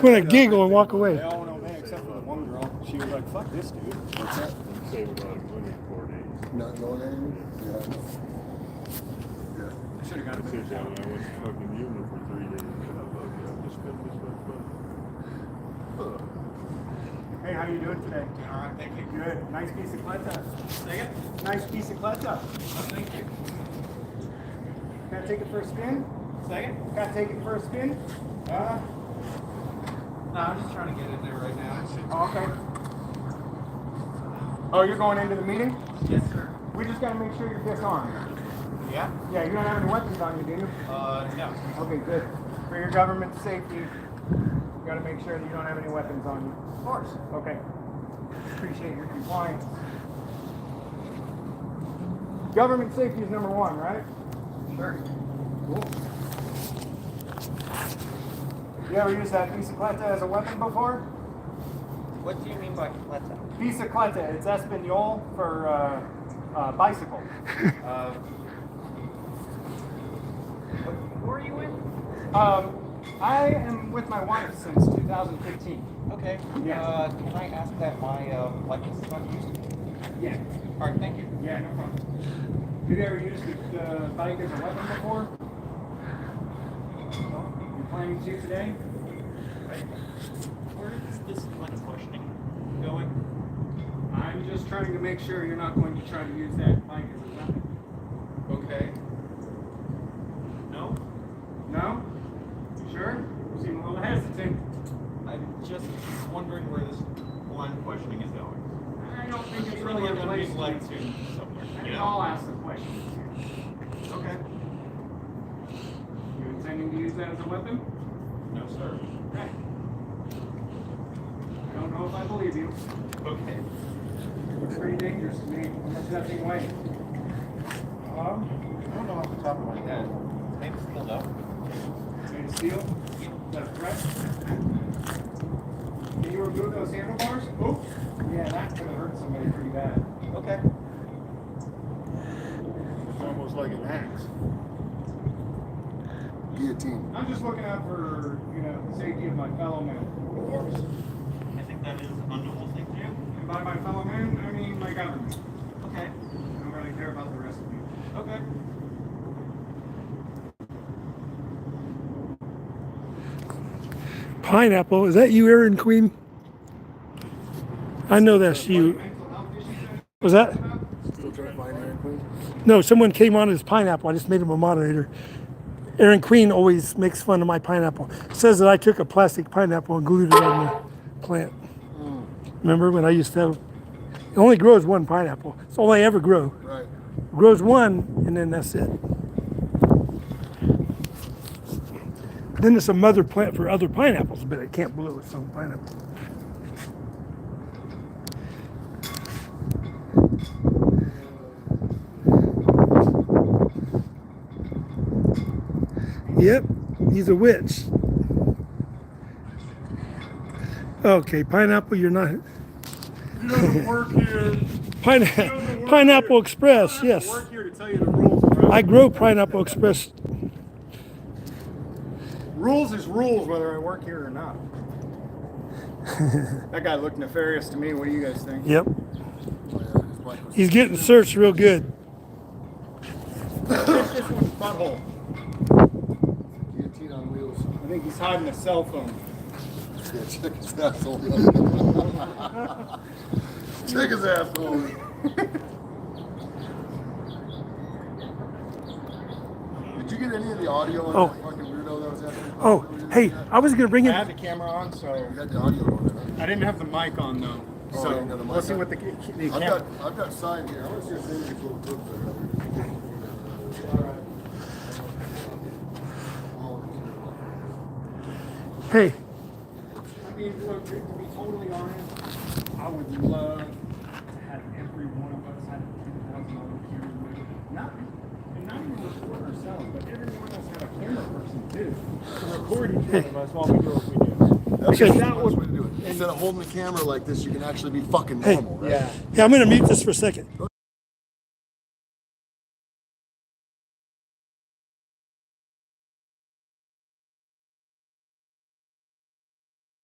We're gonna giggle and walk away. They all went okay except for the one girl. She was like, "Fuck this dude." What's up? Save about twenty-four days. Not going anywhere? Yeah. I should have I got a said, better "Damn, job. I was fucking human for three days. and I fuck it, I just spent this much money. Hey, how you doing today? All right, thank you. Good. Nice piece of kleta. Nice piece of kleta. Thank you. Gotta take it for a spin. Second? Gotta take it for a spin. Uh, No, I'm just trying to get in there right now. oh, okay. Oh, you're going into the meeting? Yes, sir. We just gotta make sure you're disarmed. Yeah? Yeah, you don't have any weapons on you, do you? Uh, no. Okay, good. For your government's safety, you gotta make sure that you don't have any weapons on you. Of course. Okay. Appreciate your compliance. Government safety is number one, right? Sure. Cool. You ever used that bicicleta as a weapon before? What do you mean by paleta? Bicicleta, it's Espanol for uh, uh, bicycle. Uh, who are you with? Um, I am with my wife since 2015. Okay. Yes. Uh, can I ask that my, um, likeness is not used? Yeah, Alright, thank you. yeah, no problem. You've ever used the uh, bike as a weapon before? No? You planning to today? Where is this line of questioning going? I'm just trying to make sure you're not going to try to use that bike as a weapon. Okay. No, No? You sure? You seem a little hesitant. I'm just wondering where this line of questioning is going. I don't think It's it's really really a gonna be place led to. to somewhere, you And know? I'll ask the questions here. Okay. You intending to use that as a weapon? No, sir. Okay. I don't know if I believe you. Okay. It's pretty dangerous to me. There's nothing way. Um, I don't know off the top of my head. His name's still up. made of steel. Is that a threat? Can you remove those handlebars? Oops. Yeah, that's gonna hurt somebody pretty bad. Okay. It's almost like an axe. Yeah. Guillotine. I'm just looking out for, you know, the safety of my fellow man. Of course. I think that is an unknowable thing to do. And by my fellow man, I mean my government. Okay. I don't really care about the rest of you. Okay. Pineapple, is that you, Aaron Queen? I know that's you. Mental health issues that Was that? Still trying to find Iron Queen? No, someone came on as pineapple. I just made him a moderator. Aaron Queen always makes fun of my pineapple. Says that I took a plastic pineapple and glued it on the plant. Remember when I used to have? It only grows one pineapple. It's all I ever grow. Right. Oh, grows one and then that's it. Then it's a mother plant for other pineapples, but it can't blow its own pineapple. Yep, he's a witch. Okay, pineapple, you're not. You don't work here. Pine, pineapple Express, yes. Work here to tell you the rules, bro. I grow Pineapple Express. Rules is rules, whether I work here or not. that guy looked nefarious to me. What do you guys think? Yep. Oh, yeah, his bike was- He's getting searched real good. Push this one's butthole. Guillotine on wheels. I think he's hiding a cell phone. Yeah, check his asshole. check his asshole. Did you get any of the audio on Oh. that fucking weirdo that was after? you? Oh, hey, I was gonna I bring in. had the camera on, so You got the audio on it, huh? I didn't have the mic on though. Oh, you So didn't have the mic let's see on. what the, ca- the I've camera. got, I've got sign here. I want to see if there's any little clip there. Hey, I mean, look, to be totally honest, I would love to have every one of us have a ten thousand dollar camera. with- Not, and not even record ourselves, but everyone else have a camera person too. To record each one of us while we do what we do. That's Okay. the best way to do it. Instead of holding the camera like this, you can actually be fucking Hey. normal, right? Yeah. yeah, I'm gonna mute this for a second.